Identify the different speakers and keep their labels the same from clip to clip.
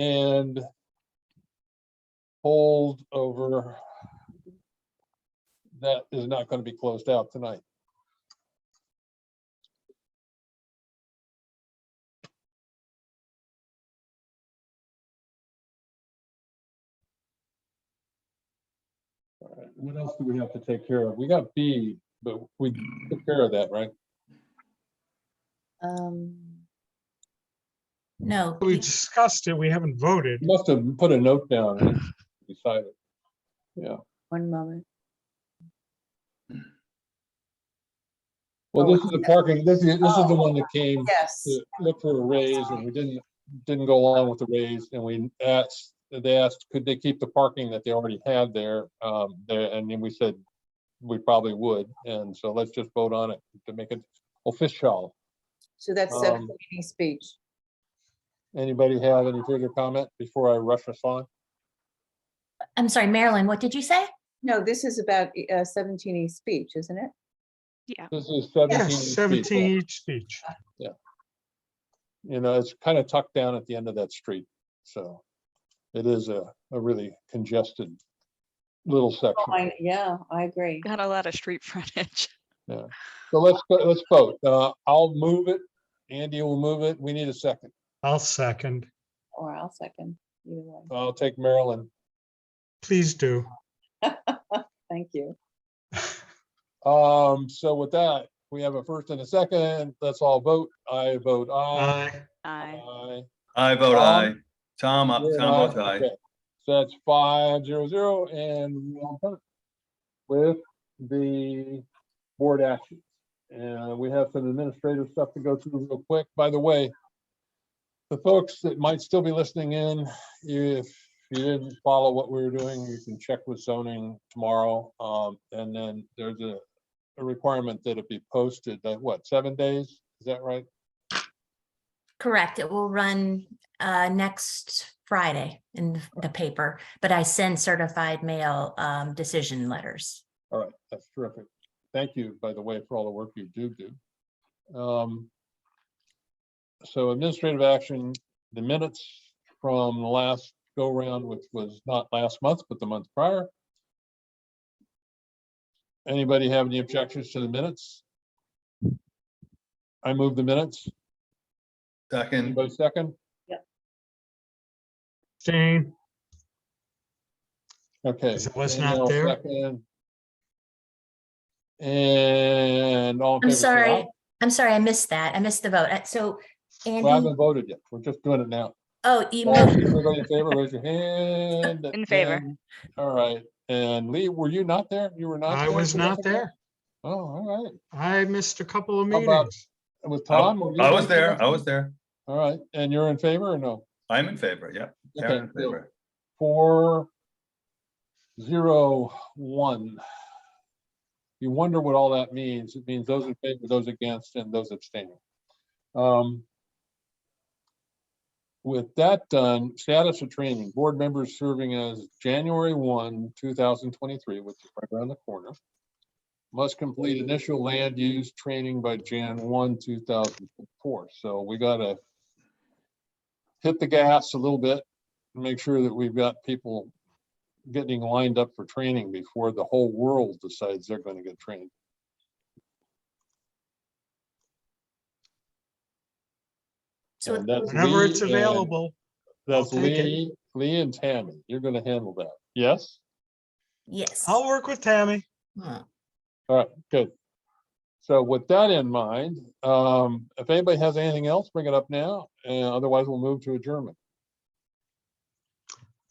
Speaker 1: and hold over that is not going to be closed out tonight. All right, What else do we have to take care of? We got B, but we took care of that, right?
Speaker 2: Um. No.
Speaker 3: We
Speaker 2: we-
Speaker 3: discussed it, we haven't voted.
Speaker 1: Must have put a note down and decided. Yeah,
Speaker 2: One moment.
Speaker 1: well, this is the parking, this is, this is the one that came
Speaker 2: Yes.
Speaker 1: to look for a raise and we didn't, didn't go along with the raise and we asked, they asked, could they keep the parking that they already had there? Um, there, and then we said, we probably would, and so let's just vote on it to make it official.
Speaker 2: So that's set
Speaker 1: Um,
Speaker 2: for meeting speech.
Speaker 1: Anybody have any further comment before I rush us on?
Speaker 4: I'm sorry, Marilyn, what did you say?
Speaker 2: No, this is about uh, 17E speech, isn't it?
Speaker 1: This is
Speaker 3: Yes,
Speaker 1: seventeen. feet.
Speaker 3: seventeen each speech.
Speaker 1: you know, it's kind of tucked down at the end of that street, so it is a, a really congested little section.
Speaker 2: Fine, Yeah, I agree.
Speaker 5: Got a lot of street frontage.
Speaker 1: So let's, go- let's vote. Uh, I'll move it. Andy will move it. We need a second.
Speaker 3: I'll second,
Speaker 2: Or I'll second. either one.
Speaker 1: I'll take Marilyn.
Speaker 3: please do.
Speaker 2: Thank you.
Speaker 1: Um, so with that, we have a first and a second. Let's all vote. I vote aye.
Speaker 3: Aye.
Speaker 5: I
Speaker 6: I vote
Speaker 1: Tom?
Speaker 6: aye. Tom, uh,
Speaker 1: You're an
Speaker 6: Tom votes
Speaker 1: aye.
Speaker 6: aye.
Speaker 1: Okay. So that's five zero zero and we're on time with the board action. And we have some administrative stuff to go through real quick. By the way, the folks that might still be listening in, if you didn't follow what we were doing, you can check with zoning tomorrow. Um, and then there's a, a requirement that it be posted, that what, seven days? Is that right?
Speaker 4: Correct. It will run uh, next Friday in the paper, but I send certified mail um, decision letters.
Speaker 1: All right, that's terrific. Thank you, by the way, for all the work you do do. Um, So administrative action, the minutes from the last go round, which was not last month, but the month prior. Anybody have any objections to the minutes? I move the minutes.
Speaker 6: Second,
Speaker 1: Anybody second?
Speaker 3: Jane,
Speaker 1: Okay.
Speaker 3: 'Cause it was
Speaker 1: Jane
Speaker 3: not
Speaker 1: Hill
Speaker 3: there.
Speaker 1: second. And all. in
Speaker 4: I'm
Speaker 1: favor say aye.
Speaker 4: sorry. I'm sorry, I missed that. I missed the vote. Uh, So
Speaker 1: Well, I
Speaker 4: Andy,
Speaker 1: haven't voted yet. We're just doing it now.
Speaker 4: oh, you
Speaker 1: All right,
Speaker 4: moved.
Speaker 1: Everybody in favor, raise your hand.
Speaker 5: In favor.
Speaker 1: and- All right, and Lee, were you not there? You were not?
Speaker 3: I
Speaker 1: there
Speaker 3: was
Speaker 1: two
Speaker 3: not
Speaker 1: months ago?
Speaker 3: there.
Speaker 1: Oh, all right.
Speaker 3: I missed a couple of
Speaker 1: How about-
Speaker 3: meetings.
Speaker 1: With
Speaker 6: I
Speaker 1: Tom? were you
Speaker 6: I was
Speaker 1: two months
Speaker 6: there, I
Speaker 1: ago?
Speaker 6: was there.
Speaker 1: All right, and you're in favor or no?
Speaker 6: I'm in favor, yeah. Karen
Speaker 1: Okay,
Speaker 6: in
Speaker 1: cool.
Speaker 6: favor.
Speaker 1: Four, zero, one. You wonder what all that means. It means those in favor, those against, and those abstaining. Um, With that done, status of training, board members serving as January one, two thousand twenty-three, which is right around the corner. Must complete initial land use training by Jan one, two thousand four. So we gotta hit the gas a little bit make sure that we've got people getting lined up for training before the whole world decides they're gonna get trained.
Speaker 4: So
Speaker 1: And that's
Speaker 3: Whenever
Speaker 1: Lee
Speaker 3: it's
Speaker 1: and-
Speaker 3: available,
Speaker 1: That's
Speaker 3: I'll take it.
Speaker 1: Lee, Lee and Tammy. You're gonna handle that. Yes?
Speaker 4: Yes.
Speaker 3: I'll work with Tammy.
Speaker 4: Hmm.
Speaker 1: All right, good. So with that in mind, um, if anybody has anything else, bring it up now, and otherwise we'll move to adjournment.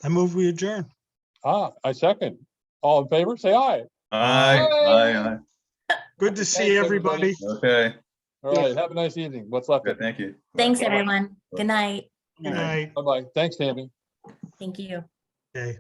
Speaker 3: I move we adjourn.
Speaker 1: Ah, I second. All in favor, say aye.
Speaker 6: Aye, aye,
Speaker 3: Good to see
Speaker 1: Thanks,
Speaker 3: everybody.
Speaker 1: everybody.
Speaker 6: aye. Okay,
Speaker 1: All right, have a nice evening. What's left
Speaker 6: good,
Speaker 1: of it.
Speaker 6: thank you.
Speaker 4: Thanks, everyone. Good night.
Speaker 3: Good night.
Speaker 1: Bye-bye. Thanks, Tammy.
Speaker 4: Thank you.
Speaker 3: Okay.